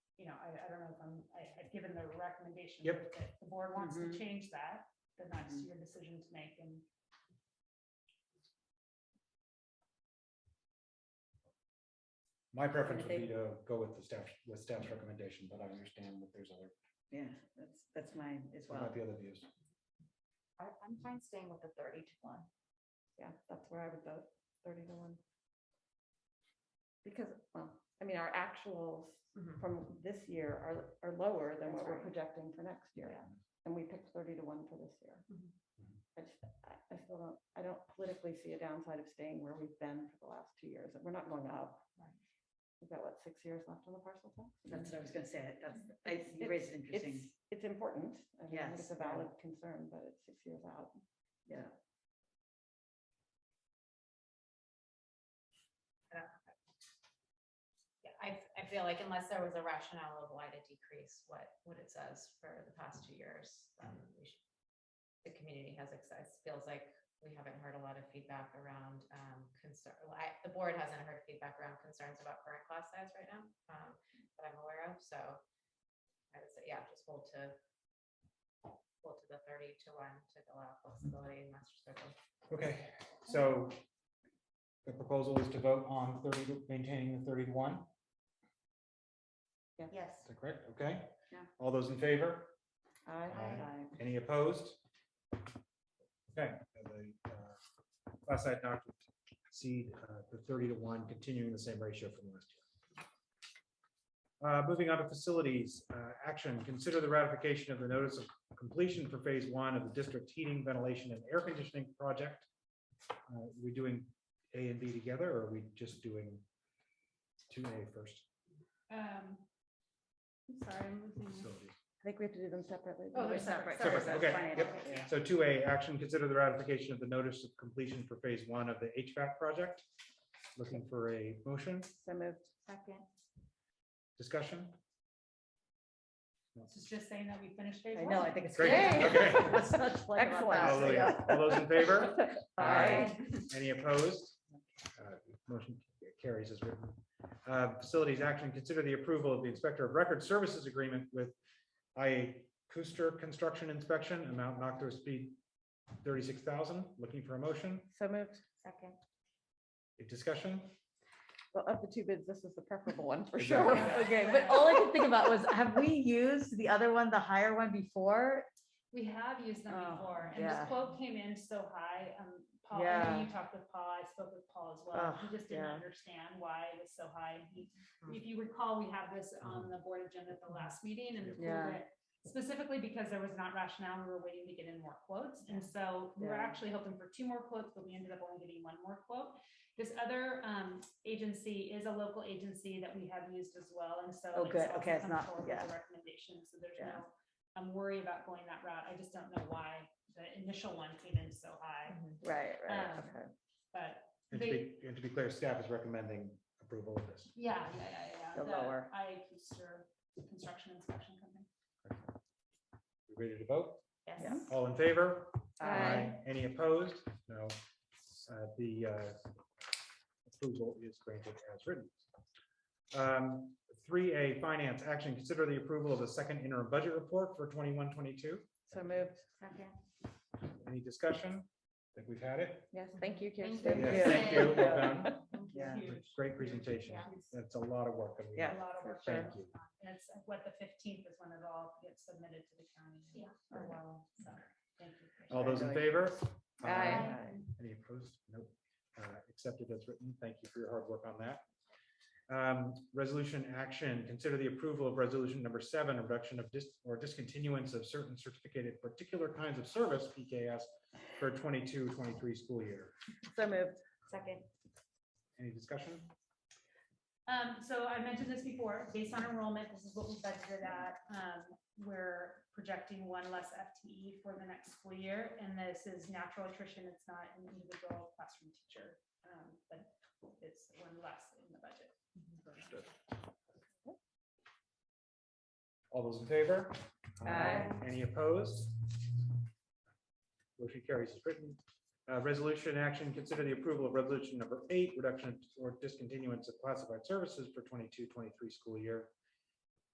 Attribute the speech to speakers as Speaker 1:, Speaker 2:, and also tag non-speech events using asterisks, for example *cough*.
Speaker 1: I don't know if I'm, I, I've given the recommendation.
Speaker 2: Yep. Mm-hmm.
Speaker 1: that The board wants to
Speaker 3: Mhm.
Speaker 1: change that, then that's your decision to make and.
Speaker 2: My preference
Speaker 3: I
Speaker 2: would be
Speaker 3: think-
Speaker 2: to go with the staff, with staff's recommendation, but I understand that there's other,
Speaker 3: Yeah, that's, that's mine as
Speaker 2: there
Speaker 3: well.
Speaker 2: might be other views.
Speaker 4: I, I'm fine staying with the thirty to one. Yeah, that's where I would vote, thirty to one. Because, well, I mean, our actuals
Speaker 2: Mm-hmm.
Speaker 4: from this year are, are lower than what
Speaker 3: That's right.
Speaker 4: we're projecting for next year.
Speaker 3: Yeah. Mm-hmm.
Speaker 4: And we picked thirty to one for this year.
Speaker 1: Mhm.
Speaker 2: Mhm.
Speaker 4: I just, I, I still don't, I don't politically see a downside of staying where we've been for the last two years, and we're not going up.
Speaker 1: Right.
Speaker 4: We've got, what, six years left on the parcel tax?
Speaker 3: That's what I was gonna say. That's, I,
Speaker 4: It's-
Speaker 3: you raised an interesting,
Speaker 4: It's, it's important. I mean, I think it's
Speaker 3: Yes,
Speaker 4: a
Speaker 3: yeah.
Speaker 4: valid concern, but it's six years out.
Speaker 3: yeah.
Speaker 5: Yeah, I, f- I feel like unless there was a rationale of why to decrease what, what it says for the past two years, then we should. The community has access, feels like we haven't heard a lot of feedback around, um, concern, well, I, the board hasn't heard feedback around concerns about current class size right now, um, that I'm aware of, so. I would say, yeah, just hold to, hold to the thirty to one to allow flexibility in master circle.
Speaker 2: Okay, so the proposal is to vote on thirty, to- maintaining the thirty to one,
Speaker 4: Yes.
Speaker 2: is that correct? Okay?
Speaker 4: Yeah.
Speaker 2: All those in favor?
Speaker 4: I,
Speaker 2: Aye. Any opposed? Okay, so the uh, class size not to exceed uh, the thirty to one, continuing the same ratio from last year. Uh, Moving on to facilities, uh, action, consider the ratification of the notice of completion for phase one of the district heating, ventilation, and air conditioning project. Uh, We're doing A and B together, or are we just doing two A first?
Speaker 1: Um, I'm sorry, I'm losing. my-
Speaker 2: Facilities.
Speaker 4: think we have to do them separately.
Speaker 1: Oh, they're
Speaker 4: They're
Speaker 1: separate,
Speaker 4: separate,
Speaker 2: separate,
Speaker 4: that's
Speaker 2: okay,
Speaker 4: fine.
Speaker 2: yep.
Speaker 4: Yeah.
Speaker 2: So two A, action, consider the ratification of the notice of completion for phase one of the HVAC project. Looking for a motion,
Speaker 4: So moved.
Speaker 5: Second.
Speaker 2: discussion?
Speaker 1: This is just saying that we finished phase
Speaker 3: I
Speaker 1: one.
Speaker 3: know, I think it's.
Speaker 2: Great,
Speaker 3: great.
Speaker 2: okay.
Speaker 3: *laughs* Let's not complain about
Speaker 4: Excellent.
Speaker 3: that.
Speaker 2: Hallelujah. All those in favor?
Speaker 4: Aye.
Speaker 2: Any opposed? Uh, Motion carries as written. Uh, Facilities action, consider the approval of the Inspector of Record Services Agreement with IA Cooster Construction Inspection, amount not to exceed thirty-six thousand. Looking for a motion,
Speaker 4: So moved.
Speaker 5: Second.
Speaker 2: a discussion?
Speaker 4: Well, of the two bids, this is the preferable one for
Speaker 2: Exactly.
Speaker 4: sure. *laughs*
Speaker 3: Okay, but all I could think about was, have we used the other one, the higher one before?
Speaker 1: We have used them
Speaker 3: Oh,
Speaker 1: before, and the
Speaker 3: yeah.
Speaker 1: quote came in so high, um, Paul, I
Speaker 3: Yeah.
Speaker 1: know you talked with Paul, I spoke with Paul as well, he
Speaker 3: Ugh,
Speaker 1: just didn't
Speaker 3: yeah.
Speaker 1: understand why it was so high. and he-
Speaker 5: Mm.
Speaker 1: If you recall, we had this on the board agenda at the last meeting and
Speaker 3: Mm. Yeah.
Speaker 1: pulled it specifically because there was not rationale, we were waiting to get in more quotes, and so we were
Speaker 3: Yeah.
Speaker 1: actually hoping for two more quotes, but we ended up only getting one more quote. This other, um, agency is a local agency that we have used as well, and so.
Speaker 3: Oh,
Speaker 1: it's
Speaker 3: good.
Speaker 1: also
Speaker 3: Okay, it's
Speaker 1: come
Speaker 3: not-
Speaker 1: forward with
Speaker 3: yeah.
Speaker 1: a Recommendation, so there's
Speaker 3: Yeah.
Speaker 1: no I'm worried about going that route. I just don't know why the initial one came in so high,
Speaker 3: Right,
Speaker 1: Um,
Speaker 3: okay.
Speaker 1: but
Speaker 2: And to be, and to be clear, staff is recommending approval of this.
Speaker 1: yeah, yeah, yeah, yeah.
Speaker 3: The lower.
Speaker 1: IA Keister Construction Inspection Company.
Speaker 2: We Ready to vote?
Speaker 5: Yes.
Speaker 3: Yeah.
Speaker 2: All in favor?
Speaker 3: Aye.
Speaker 2: Any opposed? No. Uh, The uh, approval is granted as written. Um, 3A, Finance, Action, Consider the approval of the second interim budget report for 21-22.
Speaker 4: So moved.
Speaker 5: Second.
Speaker 2: Any discussion? Think we've had it?
Speaker 4: Yes, thank you, Kirsten.
Speaker 5: Thank
Speaker 2: Yes, Thank you. Well done.
Speaker 3: Yeah.
Speaker 1: Huge.
Speaker 2: Great presentation. That's a lot of work. that we-
Speaker 3: Yeah.
Speaker 1: A lot of work.
Speaker 2: Thank
Speaker 1: there.
Speaker 2: you.
Speaker 1: And it's uh, what the fifteenth is when it all gets submitted to the county.
Speaker 5: Yeah.
Speaker 1: For a while, so, thank you. Keister.
Speaker 2: All those in favor?
Speaker 4: Aye.
Speaker 2: Any opposed? Nope. Uh, Accepted as written. Thank you for your hard work on that. Um, Resolution action, consider the approval of resolution number seven, reduction of dis, or discontinuance of certain certificated particular kinds of service, PKS, for 22-23 school year.
Speaker 4: So moved.
Speaker 5: Second.
Speaker 2: Any discussion?
Speaker 1: Um, so I mentioned this before, based on enrollment, this is what we budgeted at. Um, we're projecting one less FTE for the next school year, and this is natural attrition. It's not an individual classroom teacher. Um, but it's one less in the budget.
Speaker 2: All those in favor?
Speaker 4: Aye.
Speaker 2: Any opposed? Motion carries as written. Uh, Resolution action, consider the approval of resolution number eight, reduction or discontinuance of classified services for 22-23 school year.